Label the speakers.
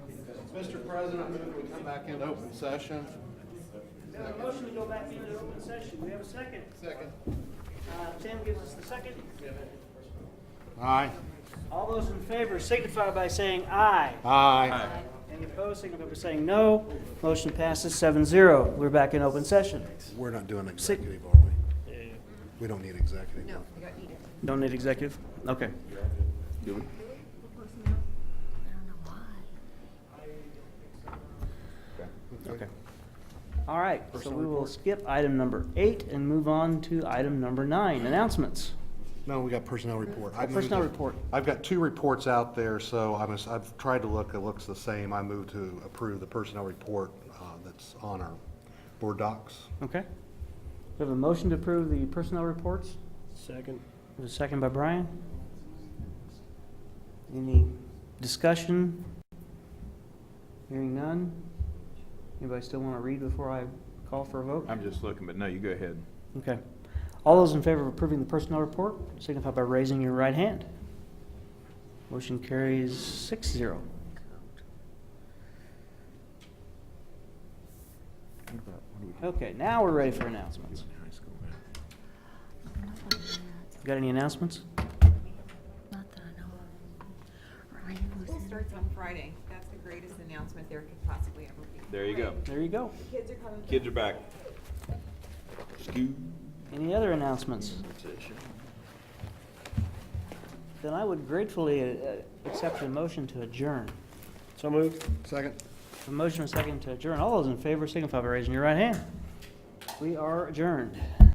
Speaker 1: Mr. President, I move we come back into open session.
Speaker 2: We have a Uh, motion to go back into open session. We have a second.
Speaker 1: Second.
Speaker 2: Uh, Tim gives us the second.
Speaker 1: Aye.
Speaker 2: All those in favor signify by saying aye.
Speaker 1: Aye.
Speaker 2: Any opposed signify by saying no. Motion passes seven zero. We're back in open session.
Speaker 3: We're not doing executive, are we? We don't need executive.
Speaker 4: No, you got needed.
Speaker 2: Don't need executive? Okay.
Speaker 1: Okay.
Speaker 2: All right, so we will skip item number eight and move on to item number nine, announcements.
Speaker 3: No, we got personnel report. I moved
Speaker 2: Personnel
Speaker 3: it.
Speaker 2: report.
Speaker 3: I've got two reports out there, so I'm, as- I've tried to look, it looks the same. I move to approve the personnel report uh, that's on our board docs.
Speaker 2: Okay. We have a motion to approve the personnel reports.
Speaker 5: Second.
Speaker 2: We have a second by Brian. Any discussion? Hearing none? Anybody still want to read before I call for a vote?
Speaker 6: I'm just looking, but no, you go ahead.
Speaker 2: Okay. All those in favor of approving the personnel report signify by raising your right hand. Motion carries six zero. Okay, now we're ready for announcements. Got any announcements?
Speaker 7: Not that I know of. Ryan
Speaker 4: School
Speaker 7: was in-
Speaker 4: starts on Friday. That's the greatest announcement there could possibly ever be.
Speaker 6: There you go.
Speaker 2: There you go.
Speaker 4: Kids are coming.
Speaker 6: Kids are back. Scoot.
Speaker 2: Any other announcements? Then I would gratefully uh, accept a motion to adjourn.
Speaker 5: So moved.
Speaker 3: Second?
Speaker 2: A motion and a second to adjourn. All those in favor signify by raising your right hand. We are adjourned.